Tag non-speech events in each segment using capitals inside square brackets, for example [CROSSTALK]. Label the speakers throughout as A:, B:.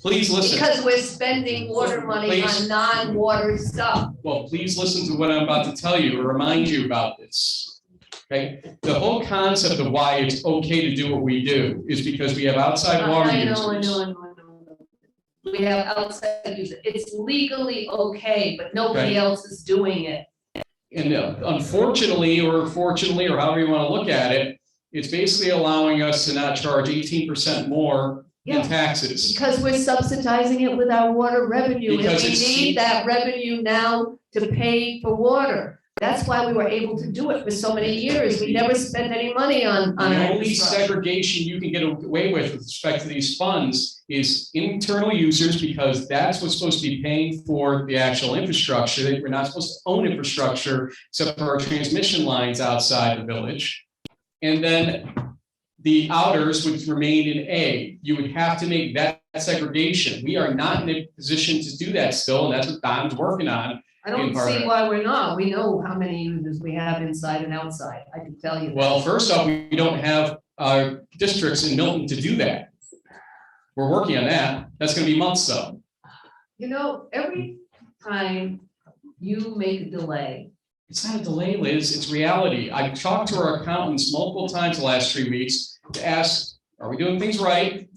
A: Please listen,
B: Because we're spending water money
A: Please.
B: on non-water stuff.
A: well, please listen to what I'm about to tell you, or remind you about this. Okay, the whole concept of why it's okay to do what we do is because we have outside water
B: Uh, I know, I
A: users.
B: know, I know, I know. We have outside users. It's legally okay, but nobody
A: Okay.
B: else is doing it.
A: And uh, unfortunately, or fortunately, or however you want to look at it, it's basically allowing us to not charge eighteen percent more in
B: Yeah.
A: taxes.
B: Because we're subsidizing it with our water revenue, and
A: Because
B: we
A: it's
B: need
A: cheap.
B: that revenue now to pay for water. That's why we were able to do it for so many years. We never spent any money on, on
A: The
B: our
A: only
B: infrastructure.
A: segregation you can get away with with respect to these funds is internal users, because that's what's supposed to be paying for the actual infrastructure. We're not supposed to own infrastructure except for our transmission lines outside the village. And then the outers would remain in A. You would have to make that segregation. We are not in a position to do that still, and that's what Don's working on.
B: I don't
A: in part of
B: see
A: it.
B: why we're not. We know how many users we have inside and outside. I can tell you. that.
A: Well, first off, we don't have uh, districts in Milton to do that. We're working on that. That's gonna be months though.
B: You know, every time you make a delay,
A: It's not a delay, Liz, it's reality. I talked to our accountants multiple times the last three weeks to ask, are we doing things right?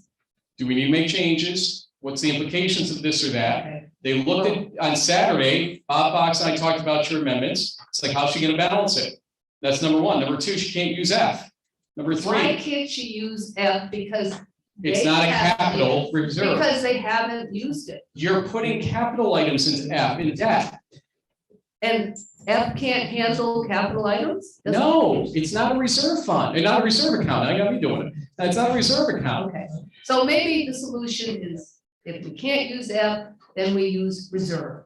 A: Do we need to make changes? What's the implications of this or that?
B: okay,
A: They looked at, on Saturday, Bob Fox and I talked about your amendments. It's like, how's she gonna balance it? That's number one. Number two, she can't use F. Number
B: why
A: three,
B: can't you use F because?
A: it's
B: they
A: not a
B: have-
A: capital reserve.
B: Because they haven't used it.
A: You're putting capital items into F in debt.
B: And F can't handle capital items? Doesn't-
A: No, it's not a reserve fund, and not a reserve account. I gotta be doing it. That's not a reserve account.
B: Okay, so maybe the solution is if we can't use F, then we use reserve.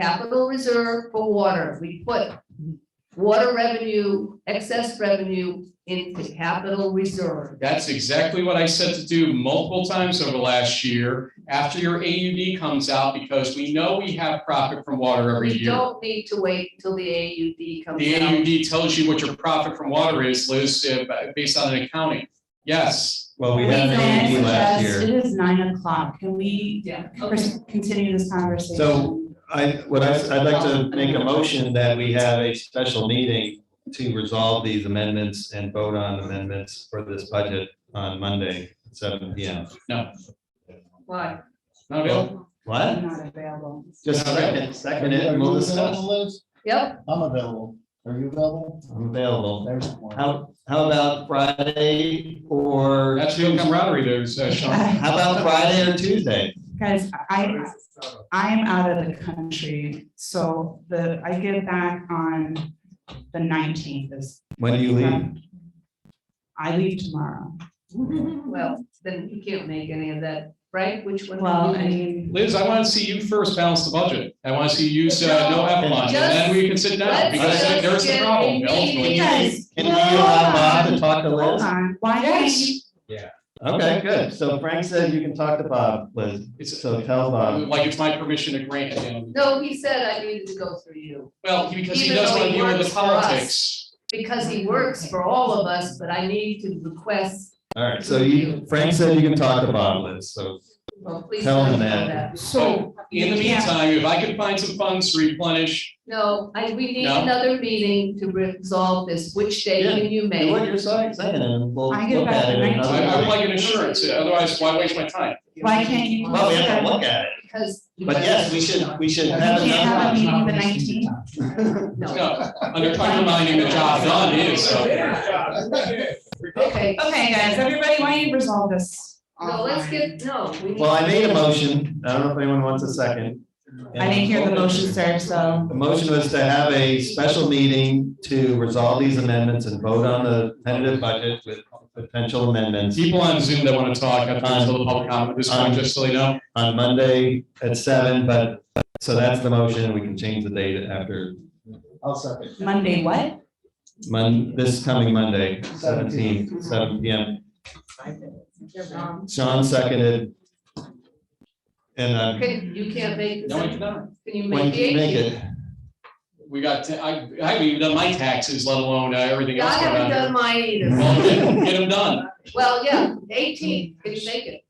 B: Capital reserve for water. We put water revenue, excess revenue into capital reserve.
A: That's exactly what I said to do multiple times over the last year after your AUD comes out because we know we have profit from water every
B: We
A: year.
B: don't need to wait until the AUD
A: The
B: comes out.
A: AUD tells you what your profit from water is, Liz, uh, based on an accounting. Yes,
C: Well, we
D: Please,
C: had an
D: may I
C: AED last
D: suggest-
C: year.
D: It is nine o'clock. Can we
B: Yeah, okay.
D: pers- continue this conversation?
C: So I, what I, I'd like to make a motion that we have a special meeting to resolve these amendments and vote on amendments for this budget on Monday, at seven P M.
B: Why?
A: not available.
C: What?
D: I'm not available.
C: Just second, second it,
E: Are you
C: we'll
E: available,
C: discuss.
E: Liz?
B: Yep,
E: I'm available. Are you available?
C: I'm available.
E: There's one.
C: How, how about Friday or?
A: That's real camaraderie there, uh,
B: [LAUGHS]
A: Sean.
C: How about Friday or Tuesday?
D: Guys, I, I am out of the country, so the, I get back on the nineteenth is.
C: When do you leave?
D: I leave tomorrow.
B: well, then you can't make any of that, Frank, which one?
D: Well, I mean,
A: Liz, I want to see you first balance the budget. I want to see you say no avalanche, and then we can sit down
B: Let's
A: because
B: just
A: there's the
B: get a
A: problem. Bill.
B: meeting.
D: guys.
C: Can you allow Bob to talk to
D: Hold
C: Liz?
D: on, why can't you?
C: Okay, good. So Frank said you can talk to Bob, Liz.
A: It's uh,
C: So um, tell Bob.
A: like it's my permission to grant him.
B: No, he said I needed to go through you.
A: Well, he- because he
B: Even
A: doesn't
B: though
A: want to
B: he
A: deal with
B: works
A: the
B: for us.
A: politics.
B: because he works for all of us, but I need to request,
C: All right, so you, Frank said you can talk to Bob, Liz, so.
B: well, please.
C: Tell him
B: don't do
C: that.
D: So.
A: In the
D: you can't-
A: meantime, if I could find some funds to replenish,
B: No, I, we need
A: No.
B: another meeting to resolve this, which day
C: Yeah,
B: can you
C: Do what
B: make?
C: you're saying, and we'll
D: I get
C: look
D: back
C: at it
D: the
C: another
A: I
D: 19th.
A: I would
C: day.
A: like an insurance, otherwise why waste my time?
D: Why can't you?
C: Well, we have to look at it,
B: Because.
C: but yes, we should, we should
D: You
C: have
D: can't have a
C: another.
D: meeting the nineteenth?
B: No,
A: No, under undermining the job done is, so.
B: okay,
D: Okay, guys, everybody, why don't you resolve this?
B: no, let's get, no, we need.
C: Well, I made a motion. I don't know if anyone wants a second.
D: I didn't hear the motion, sir, so.
C: The motion was to have a special meeting to resolve these amendments and vote on the tentative budget with potential amendments
A: People on Zoom that want to talk, I think it's a little public comment at this point, just so you know.
C: on Monday at seven, but, so that's the motion. We can change the date after
E: I'll second.
D: Monday, what?
C: Mon, this coming Monday, 17th, 7 P M.
B: um,
C: Sean seconded. And uh,
B: Can, you can't make, the
A: No, we
B: second-
A: cannot.
B: can you
C: when
B: make the
C: you make
B: eighteenth?
C: it,
A: We got, ta- I, I haven't even done my taxes, let alone uh, everything
B: I
A: else going on.
B: haven't
A: here.
C: [LAUGHS]
B: done mine either.
A: Well, Get them done.
B: Well, yeah, eighteen, can you make it?